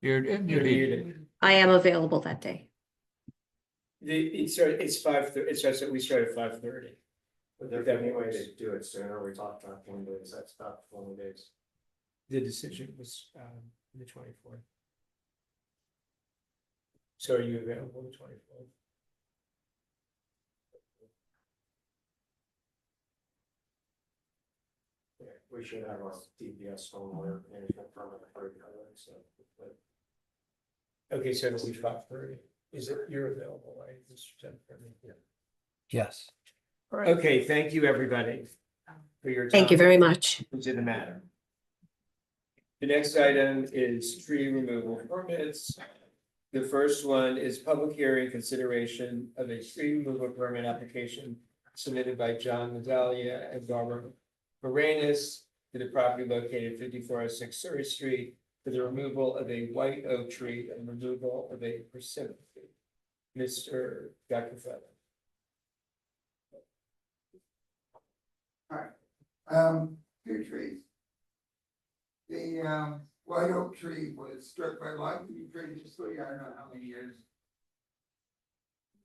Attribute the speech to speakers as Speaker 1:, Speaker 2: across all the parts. Speaker 1: You're,
Speaker 2: You're muted.
Speaker 3: I am available that day.
Speaker 2: The, it started, it's five, thir- it starts, at- we start at five thirty.
Speaker 4: But there's any way to do it sooner, we talked about twenty days, that's about twenty days.
Speaker 2: The decision was, um, the twenty-fourth. So are you available the twenty-fourth?
Speaker 4: Yeah, we should have our DPS home lawyer management permit approved, by then, so. but
Speaker 2: Okay, so it'll be five thirty. Is it, you're available, right? Mr. Jennifer?
Speaker 1: Yes.
Speaker 2: Okay, thank you, everybody, for your time.
Speaker 3: Thank you very much.
Speaker 2: To the matter. The next item is tree removal permits. The first one is public hearing consideration of a tree removal permit application submitted by John Medalia and Barbara Moranis to the property located fifty-four oh six Surrey Street for the removal of a white oak tree and removal of a persimmon tree. Mr. Dr. Feather.
Speaker 5: Um, two trees. The um, white oak tree was struck by lightning previously, I don't know how many years.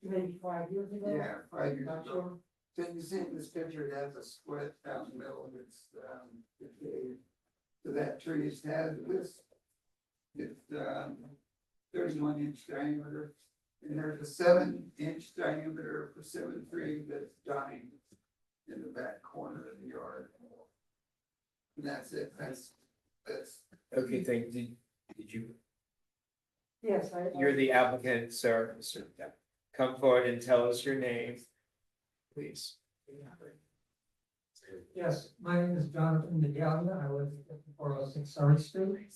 Speaker 6: Maybe five years ago?
Speaker 5: Yeah, five years
Speaker 6: Not
Speaker 5: ago.
Speaker 6: sure.
Speaker 5: So you see in this picture, it has a split down the middle of its um. decayed. So that tree is had this. It's um thirty-one inch diameter. And there's a seven inch diameter persimmon tree that's dying in the back corner of the yard. And that's it, that's, that's,
Speaker 2: Okay, thank, did, did you
Speaker 6: Yes, I. I-
Speaker 2: You're the applicant, sir, Mr. Depp. Come forward and tell us your name, please.
Speaker 6: Yes, my name is Jonathan Medalia. I live at four oh six Surrey Street.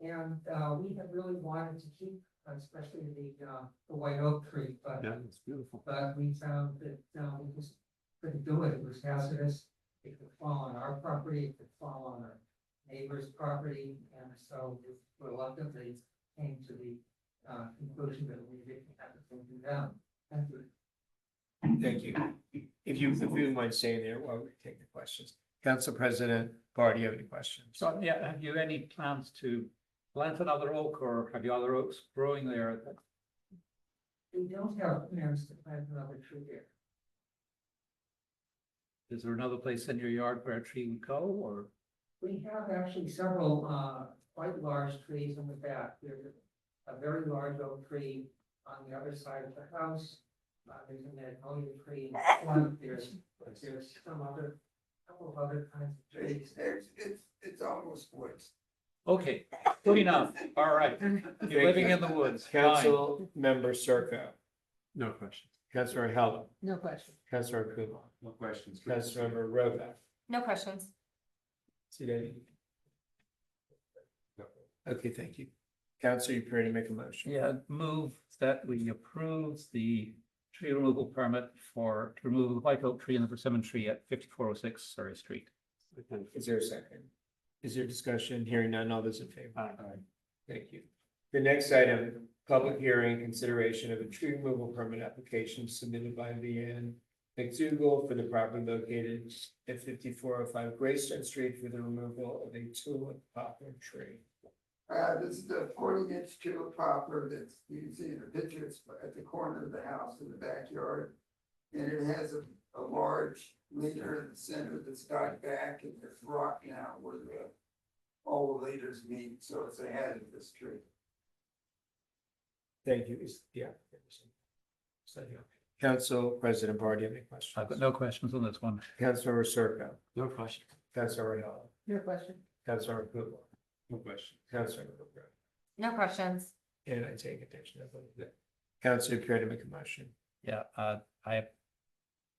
Speaker 6: And uh, we have really wanted to keep, especially the uh, the white oak tree, but.
Speaker 4: it's beautiful.
Speaker 6: But we found that uh, we just couldn't do it. It was hazardous. It could fall on our property, it could fall on our neighbor's property. And so we reluctantly came to the uh, conclusion that we didn't have to take it down. Thank you.
Speaker 2: Thank you. If you, if you wouldn't mind staying there while we take the questions. Council President Bar, do you have any questions?
Speaker 7: So, yeah, have you any plans to plant another oak or have you other oaks growing there?
Speaker 6: We don't have plans to plant another tree there.
Speaker 7: Is there another place in your yard where a tree would go or?
Speaker 6: We have actually several uh quite large trees in the back. There's a very large oak tree on the other side of the house. Uh, there's a magnolia tree in front, there's, there's some other, couple of other kinds of trees.
Speaker 5: it's, it's, it's almost woods.
Speaker 7: Okay, good enough. All right. You're living in the woods. Fine.
Speaker 2: Council Member Circo,
Speaker 4: No questions.
Speaker 2: Councilor Heller,
Speaker 6: No question.
Speaker 2: Councilor Kumar,
Speaker 4: No questions.
Speaker 2: Councilmember Rovak.
Speaker 8: No questions.
Speaker 2: See that? Okay, thank you. Council, you prepared to make a motion?
Speaker 7: Yeah, move that we approve the tree removal permit for to remove the white oak tree and the persimmon tree at fifty-four oh six Surrey Street.
Speaker 2: Is there a second? Is there discussion? Hearing none, all those in favor?
Speaker 7: Aye.
Speaker 2: Thank you. The next item, public hearing consideration of a tree removal permit application submitted by Leanne McDougal for the property located at fifty-four oh five Greystone Street for the removal of a tulip poplar tree.
Speaker 5: Uh, this is the forty inch tulip poplar that's, you can see in the pictures at the corner of the house in the backyard. And it has a, a large leader in the center that's got back and it's rocked now where the, all the leaders meet, so it's a hazardous tree.
Speaker 2: Thank you. Is the applicant? So, yeah. Council President Bar, do you have any questions?
Speaker 7: I've got no questions on this one.
Speaker 2: Councilmember Circo,
Speaker 4: No questions.
Speaker 2: Councilor Ayala,
Speaker 6: Your question.
Speaker 2: Councilmember Pueblo,
Speaker 4: No questions.
Speaker 2: Councilmember Rivera.
Speaker 8: No questions.
Speaker 2: And I take attention to that. Council, care to make a motion?
Speaker 7: Yeah, uh, I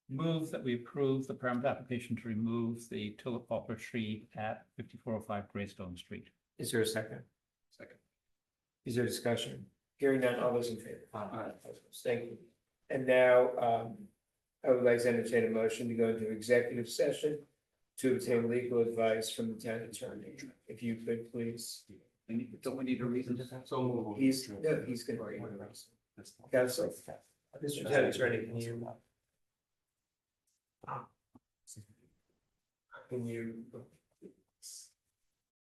Speaker 7: move that we approve the permit application to remove the tulip poplar tree at fifty-four oh five Greystone Street.
Speaker 2: Is there a second?
Speaker 4: Second.
Speaker 2: Is there discussion? Hearing none, all those in favor?
Speaker 4: Aye.
Speaker 2: Thank you. And now, um, I would like to entertain a motion to go into executive session to obtain legal advice from the town attorney. If you could, please.
Speaker 4: Don't we need a reason? So move.
Speaker 2: He's, no, he's gonna bring it up. Council, Mr. Town Attorney, can you? Can you